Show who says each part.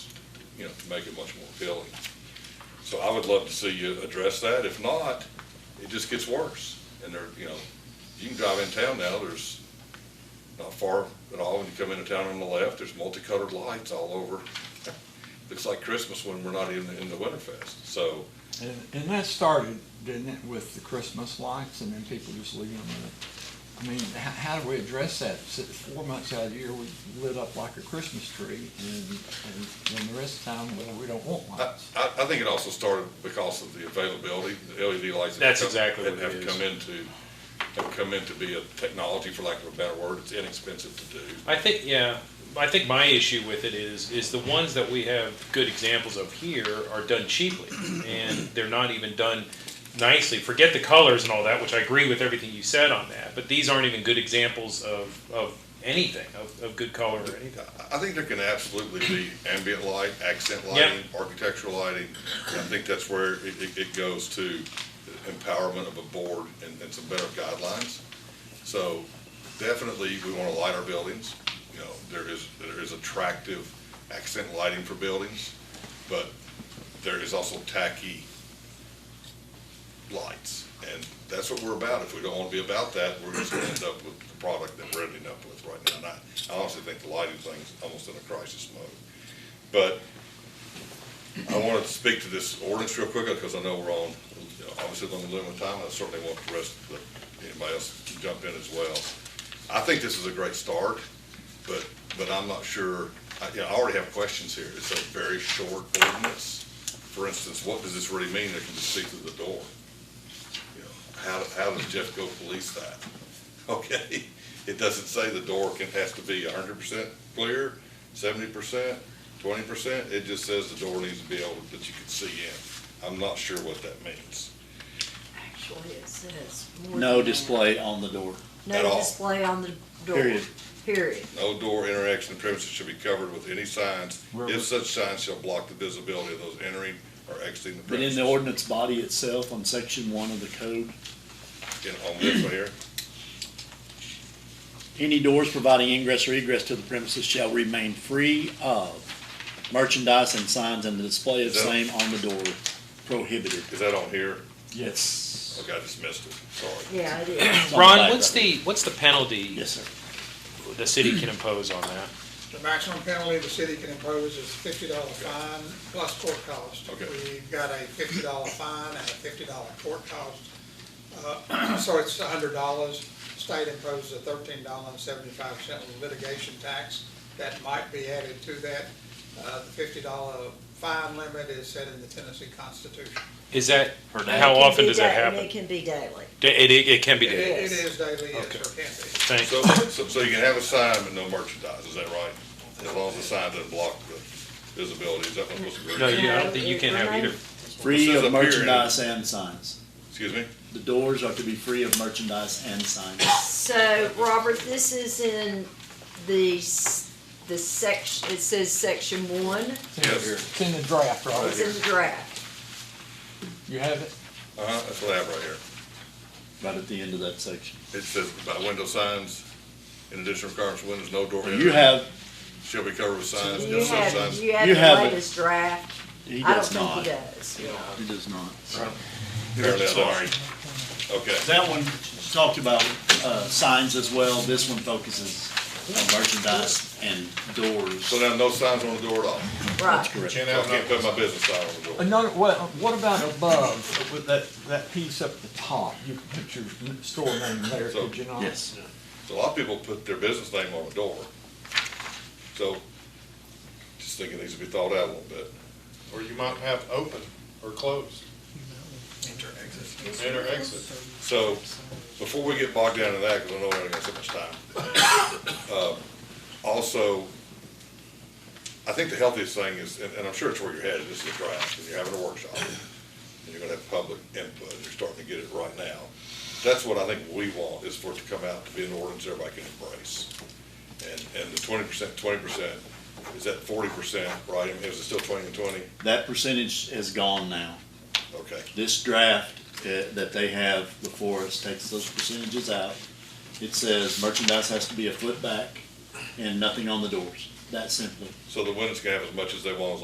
Speaker 1: you know, to make it much more appealing. So I would love to see you address that. If not, it just gets worse. And there, you know, you can drive in town now, there's not far at all when you come into town on the left, there's multicolored lights all over. Looks like Christmas when we're not even in the Winterfest. So,
Speaker 2: And, and that started, didn't it, with the Christmas lights and then people just leaving them there? I mean, how, how do we address that? S- Four months out of the year, we lit up like a Christmas tree and, and then the rest of the time, well, we don't want
Speaker 1: I,
Speaker 2: lights.
Speaker 1: I, I think it also started because of the availability, the LED lights. that
Speaker 3: That's
Speaker 1: come-
Speaker 3: exactly
Speaker 1: that
Speaker 3: what it
Speaker 1: Have
Speaker 3: is.
Speaker 1: come into, have come in to be a technology, for lack of a better word, it's inexpensive to do.
Speaker 3: I think yeah. I think my issue with it is is the ones that we have good examples of here are done cheaply, and they're not even done nicely. Forget the colors and all that, which I agree with everything you said on that. But these aren't even good examples of of anything of, of good color or anything.
Speaker 1: I think there can absolutely be ambient light, accent lighting, architectural lighting. And I think that's where it, it, it goes to empowerment of a board and, and some better guidelines. So definitely, we want to light our buildings. You know, there is, there is attractive accent lighting for buildings, but there is also tacky lights. And that's what we're about. If we don't want to be about that, we're just going to end up with the product that we're ending up with right now. And I- I honestly think the lighting thing's almost in a crisis mode. But I wanted to speak to this ordinance real quickly because I know we're on, you know, obviously, on the limit of time. I certainly want the rest, of the- anybody else to jump in as well. I think this is a great start, but, but I'm not sure, I, you know, I already have questions here. It's a very short ordinance. For instance, what does this really mean? It can just see through the door. You know, How, how does Jeff go police that? Okay, it doesn't say the door can, has to be hundred percent clear, seventy percent, twenty percent. It just says the door needs to be able, that you can see in. I'm not sure what that means.
Speaker 4: Actually, it says. more
Speaker 5: No
Speaker 4: than that.
Speaker 5: display on the door,
Speaker 1: at
Speaker 4: No
Speaker 1: all.
Speaker 4: display on the door.
Speaker 5: Period.
Speaker 4: Period.
Speaker 1: No door interaction premises should be covered with any signs.
Speaker 2: Where
Speaker 1: If
Speaker 2: was-
Speaker 1: such signs shall block the visibility of those entering or exiting the
Speaker 5: but in
Speaker 1: premises.
Speaker 5: the ordinance body itself, on section one of the code,
Speaker 1: In- On this right here,
Speaker 5: any doors providing ingress or egress to the premises shall remain free of merchandise and signs and the display of
Speaker 1: Is that-
Speaker 5: same on the door prohibited.
Speaker 1: is that on here?
Speaker 2: Yes.
Speaker 1: Okay, I just missed it, sorry.
Speaker 4: Yeah, it is.
Speaker 5: It's on the
Speaker 3: Ron,
Speaker 5: back
Speaker 3: what's
Speaker 5: of it.
Speaker 3: the what's the penalty
Speaker 5: Yes, sir.
Speaker 3: the city can impose on that?
Speaker 6: The maximum penalty the city can impose is fifty dollar fine plus court cost.
Speaker 1: Okay.
Speaker 6: We've got a fifty dollar fine and a fifty dollar court cost. Uh, So it's a hundred dollars. State imposes a thirteen dollar and seventy-five cent litigation tax. That might be added to that. Uh, The fifty dollar fine limit is set in the Tennessee Constitution.
Speaker 3: Is that
Speaker 4: And it
Speaker 3: how
Speaker 4: can
Speaker 3: often
Speaker 4: be
Speaker 3: does that
Speaker 4: da- and
Speaker 3: happen?
Speaker 4: It can be daily.
Speaker 3: It, it, it can be.
Speaker 6: It
Speaker 3: dated.
Speaker 6: it is daily, yes,
Speaker 3: Okay.
Speaker 6: or can be.
Speaker 3: Thank
Speaker 1: So, so, so you can have a sign but no merchandise, is that right? As long as the sign doesn't block the visibility, is that what I'm supposed to
Speaker 3: No,
Speaker 1: agree?
Speaker 3: you, Oh, I don't think you can
Speaker 4: Um,
Speaker 3: have either.
Speaker 1: This
Speaker 5: Free
Speaker 1: is
Speaker 5: of
Speaker 1: a period.
Speaker 5: merchandise and signs.
Speaker 1: Excuse me?
Speaker 5: The doors are to be free of merchandise and signs.
Speaker 4: So, Robert, this is in the, s- the section, it says section one,
Speaker 2: It's in the-
Speaker 1: Yes.
Speaker 2: It's in the draft,
Speaker 4: it's in
Speaker 2: Robert.
Speaker 4: the draft.
Speaker 2: You have it?
Speaker 1: Uh-huh, that's what I have right here.
Speaker 5: Right at the end of that section.
Speaker 1: It says about window signs, in addition to requirements, windows, no door.
Speaker 5: You have,
Speaker 1: Shall be covered with signs,
Speaker 4: You
Speaker 1: no such
Speaker 4: have,
Speaker 1: signs.
Speaker 4: you have
Speaker 5: You have
Speaker 4: the
Speaker 5: it.
Speaker 4: latest draft.
Speaker 5: he
Speaker 4: I don't
Speaker 5: does
Speaker 4: think
Speaker 5: not.
Speaker 4: he does.
Speaker 5: He does not.
Speaker 1: Apparently, I don't. Okay,
Speaker 5: That one talked about uh, signs as well. This one focuses on merchandise and doors.
Speaker 1: so now no signs on the door at all.
Speaker 4: Right.
Speaker 1: Can't have, can't put my business sign on the door.
Speaker 2: Another, what, what about above, with that, that piece up the top? You can put your n- store name there,
Speaker 1: So-
Speaker 2: could you not?
Speaker 5: Yes.
Speaker 1: So a lot of people put their business name on the door. So, just thinking these would be thought out a little bit.
Speaker 7: Or you might have open or closed. Enter exit.
Speaker 1: So, before we get bogged down in that, because I know we only got so much time. um, Also, I think the healthiest thing is, and and I'm sure it's where you're headed, this is a draft, and you're having a workshop, and you're gonna have public input, and you're starting to get it right now. That's what I think we want, is for it to come out to be an ordinance everybody can embrace. And, and the twenty percent, twenty percent, is that forty percent, right? I mean, Is it still twenty and twenty?
Speaker 5: That percentage is gone now.
Speaker 1: Okay,
Speaker 5: This draft uh, that they have before us takes those percentages out. It says merchandise has to be a foot back and nothing on the doors. That simple.
Speaker 1: so the women's can have as much as they want as